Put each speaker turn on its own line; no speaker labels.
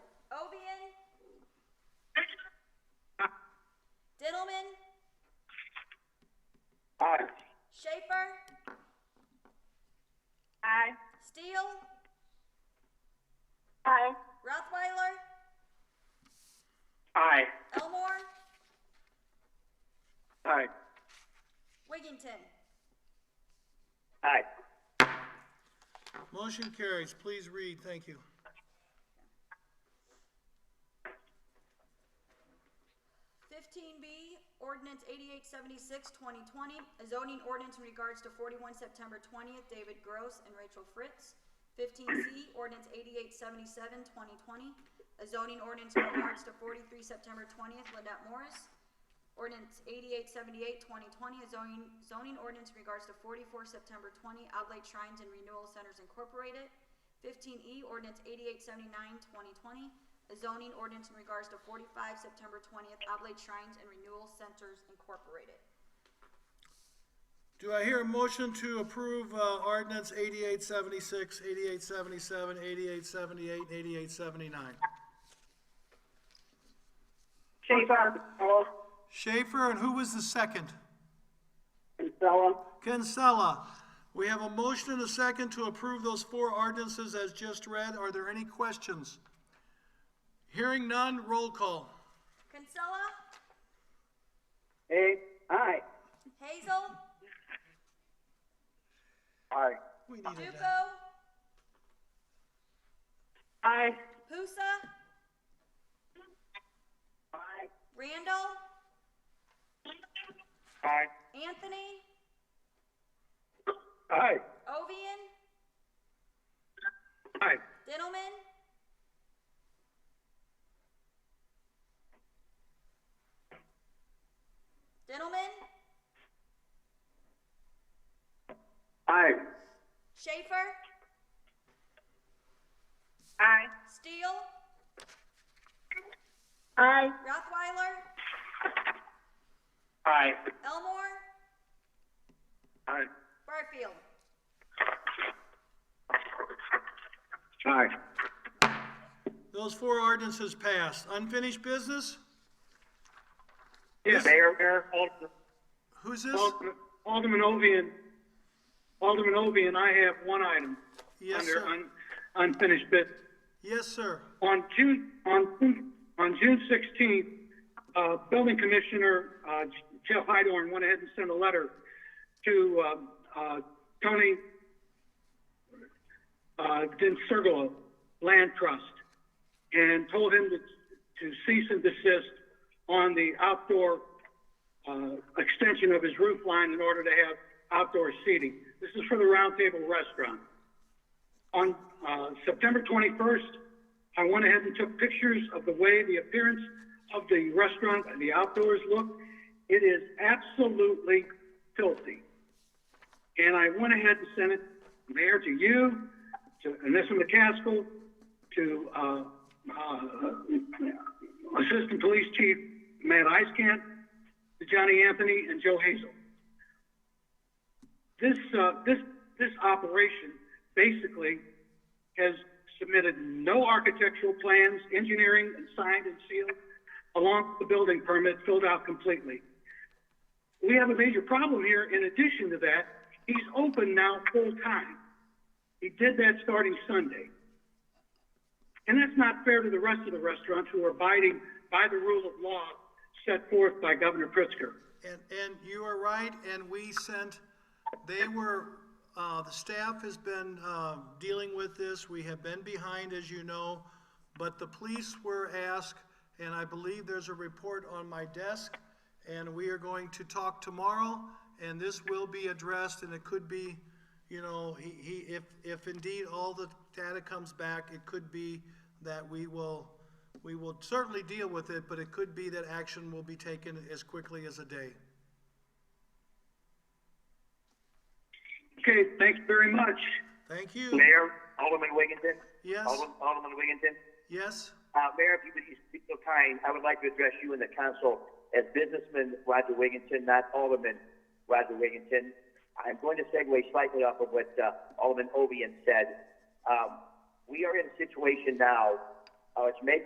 Aye.
Elmore,
Aye.
Wiggington,
Aye.
Motion carries. Please read. Thank you.
fifteen B, ordinance eighty-eight seventy-six twenty twenty, a zoning ordinance in regards to forty-one September twentieth, David Gross and Rachel Fritz. Fifteen C, ordinance eighty-eight seventy-seven twenty twenty, a zoning ordinance in regards to forty-three September twentieth, Lynette Morris. Ordinance eighty-eight seventy-eight twenty twenty, a zoning, zoning ordinance in regards to forty-four September twenty, Oblate Shrines and Renewal Centers Incorporated. Fifteen E, ordinance eighty-eight seventy-nine twenty twenty, a zoning ordinance in regards to forty-five September twentieth, Oblate Shrines and Renewal Centers Incorporated.
Do I hear a motion to approve uh, ordinance 8876, 8877, 8878, and 8879?
Schaefer, Capella,
Schaefer, and who was the second?
Kinsella,
Kinsella. We have a motion and a second to approve those four ordinances as just read. Are there any questions? Hearing none, roll call.
Kinsella,
Aye. Aye.
Hazel,
Aye.
We needed that.
Duco,
Aye.
Pusa,
Aye.
Randall,
Aye.
Anthony,
Aye.
Ovian,
Aye.
Dillman, Dillman,
Aye.
Schaefer,
Aye.
Steele,
Aye.
Rothweiler,
Aye.
Elmore,
Aye.
Barfield.
Aye.
Those four ordinances passed. Unfinished business?
Yeah, Mayor, Mayor, Alderman-
Who's this?
Alderman, Alderman Ovian, Alderman Ovian, I have one item.
Yes, sir.
Under un- unfinished business.
Yes, sir.
On June, on, June- on June sixteenth, uh, Building Commissioner, uh, Jeff Hydorn went ahead and sent a letter to, uh, uh, Tony, uh, Dinsergolo Land Trust and told him to, to cease and desist on the outdoor uh, extension of his roof line in order to have outdoor seating. This is for the Round Table Restaurant. On uh, September 21st, I went ahead and took pictures of the way the appearance of the restaurant and the outdoors look. It is absolutely filthy. And I went ahead and sent it, Mayor, to you, to Anissa McCaskill, to, uh, uh, Assistant Police Chief Matt Iskamp, to Johnny Anthony and Joe Hazel. This, uh, this, this operation basically has submitted no architectural plans, engineering, and signed and sealed, along with the building permit filled out completely we have a major problem here. In addition to that, he's open now full time. He did that starting Sunday. And that's not fair to the rest of the restaurants who are abiding by the rule of law set forth by Governor Pritzker.
And, and you are right, and we sent, they were, uh, the staff has been, um, dealing with this. We have been behind, as you know, but the police were asked, and I believe there's a report on my desk, and we are going to talk tomorrow, and this will be addressed, and it could be, you know, he, he, if, if indeed all the data comes back, it could be that we will, we will certainly deal with it, but it could be that action will be taken as quickly as a day.
Okay, thanks very much.
Thank you.
Mayor, Alderman Wiggington.
Yes.
Alderman, Alderman Wiggington.
Yes,
Uh, Mayor, if you would just be so kind, I would like to address you and the council as businessman Roger Wiggington, not Alderman Roger Wiggington. I'm going to segue slightly off of what uh, Alderman Ovian said. Um, we are in a situation now, uh, it's May